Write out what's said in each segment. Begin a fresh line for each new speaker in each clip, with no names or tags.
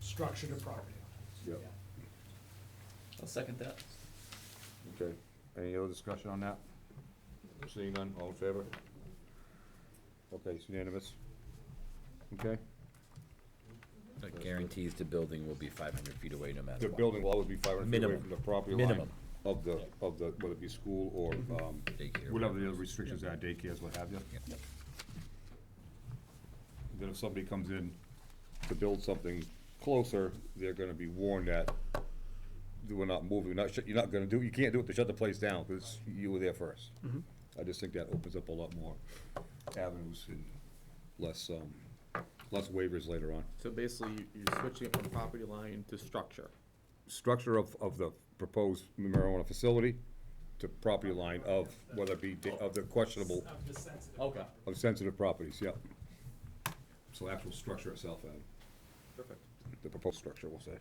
structure to property.
Yep.
I'll second that.
Okay, any other discussion on that? Seeing none, all in favor? Okay, it's unanimous. Okay,
That guarantees the building will be five hundred feet away no matter what.
the building will always be five hundred feet away
Minimum.
from the property line
Minimum.
of the, of the, whether it be school or, um,
Daycare.
whatever the other restrictions are, daycares, what have you.
Yeah.
Then if somebody comes in to build something closer, they're gonna be warned that we're not moving, not, shut- you're not gonna do, you can't do it to shut the place down, because you were there 1st I just think that opens up a lot more avenues and less, um, less waivers later on.
So basically, you- you're switching it from property line to structure.
Structure of, of the proposed marijuana facility to property line of, whether it be, da- of the questionable,
Of the sensitive
Okay.
of sensitive properties, yep. So actual structure itself, Adam.
Perfect.
the proposed structure, we'll say.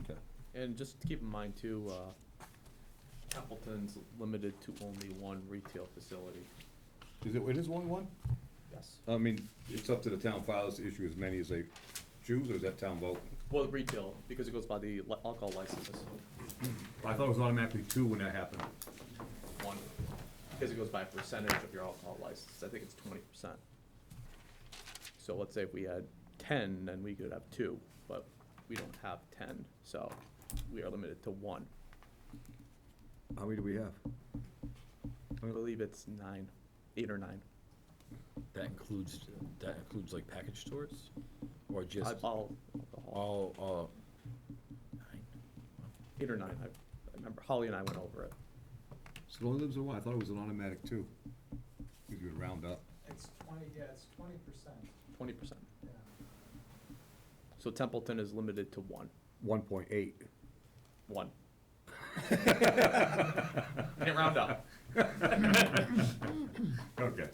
Okay.
And just to keep in mind too, uh, Templeton's limited to only one retail facility.
Is it, it is only one?
Yes.
I mean, it's up to the town files to issue as many as they choose, or is that town vote?
Well, retail, because it goes by the li- alcohol licenses,
I thought it was automatically two when that happened.
one, because it goes by percentage of your alcohol license, I think it's twenty percent. So let's say if we had ten, then we could have two, but we don't have ten, so we are limited to one.
How many do we have?
I believe it's nine, eight or nine.
That includes, that includes like package stores or just
I- I'll- I'll-
all, all? nine?
eight or nine, I I remember Holly and I went over it.
So it only lives in one, I thought it was an automatic two. If you would round up.
It's twenty, yeah, it's twenty percent,
Twenty percent.
yeah.
So Templeton is limited to one,
One point eight.
one. Can't round up.
Okay.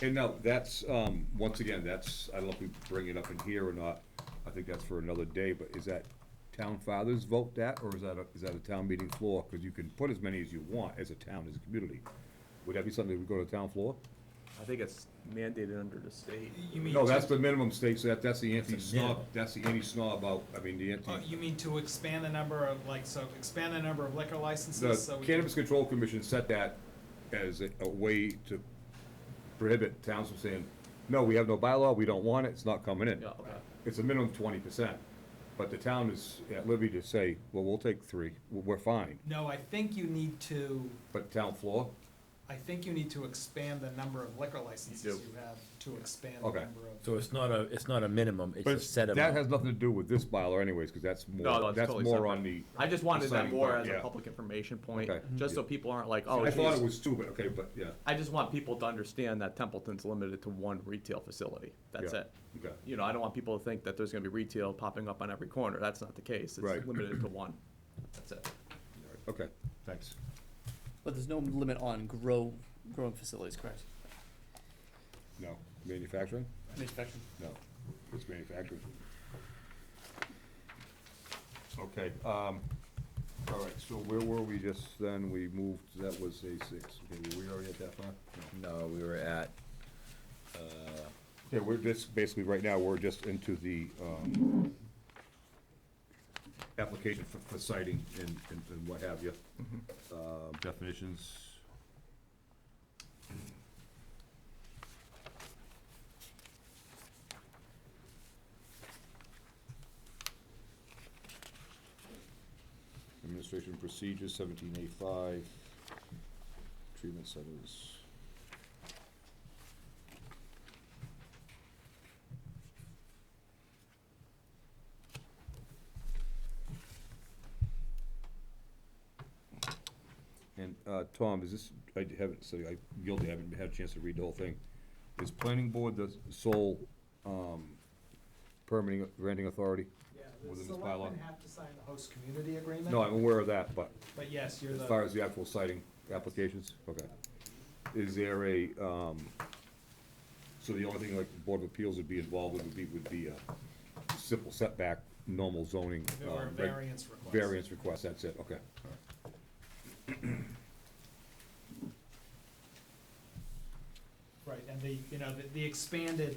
And now, that's, um, once again, that's, I don't know if we bring it up in here or not, I think that's for another day, but is that town fathers vote that, or is that, a- is that a town meeting floor? Because you can put as many as you want as a town, as a community. Would that be something that would go to town floor?
I think it's mandated under the state.
You mean,
No, that's the minimum stakes, that, that's the
minimum.
anti-snob, that's the anti-snob out, I mean, the
oh,
anti.
you mean to expand the number of, like, so expand the number of liquor licenses, so
The
we can.
Cannabis Control Commission set that as a, a way to prohibit towns from saying, no, we have no bylaw, we don't want it, it's not coming in.
Yeah, okay.
it's a minimum twenty percent, but the town is at liberty to say, well, we'll take three, we're we're fine,
No, I think you need to,
but town floor,
I think you need to expand the number of liquor licenses
do.
you have to expand the
Okay.
number of.
So it's not a, it's not a minimum, it's a set
that
amount.
has nothing to do with this bylaw anyways, because that's
No, no,
more,
it's
that's
totally
more
separate.
on the.
I just wanted that
deciding
more
part,
as
yeah.
a public information point,
Okay.
just so people aren't like, oh,
I thought it
geez.
was stupid, okay, but, yeah,
I just want people to understand that Templeton's limited to one retail facility. That's
Yeah.
it.
okay,
You know, I don't want people to think that there's gonna be retail popping up on every corner. That's not the case.
Right.
It's limited to one. That's it.
okay, thanks.
But there's no limit on grow, growing facilities, correct?
No, manufacturing?
Manufacturing.
No, it's manufactured. Okay, um, all right, so where were we just then? We moved, that was A six. Okay, were we already at that far?
No, we were at, uh,
Okay, we're just, basically, right now, we're just into the, um, application for, for citing and, and and what have you.
Mm-hmm.
Uh, definitions. Administration procedures, seventeen A five, treatment centers. And, uh, Tom, is this, I haven't, so I, guilty, I haven't had a chance to read the whole thing. Is planning board the sole, um, permitting, granting authority?
Yeah,
Within
the
this
selectmen
bylaw.
have to sign the host community agreement.
No, I'm aware of that, but
But yes, you're
as
the.
far as the actual citing applications, okay. Is there a, um, so the only thing like the Board of Appeals would be involved with would be, would be a simple setback, normal zoning.
There were
um, reg-
variance requests.
Variance request, that's it, okay.
Right, and the, you know, the, the expanded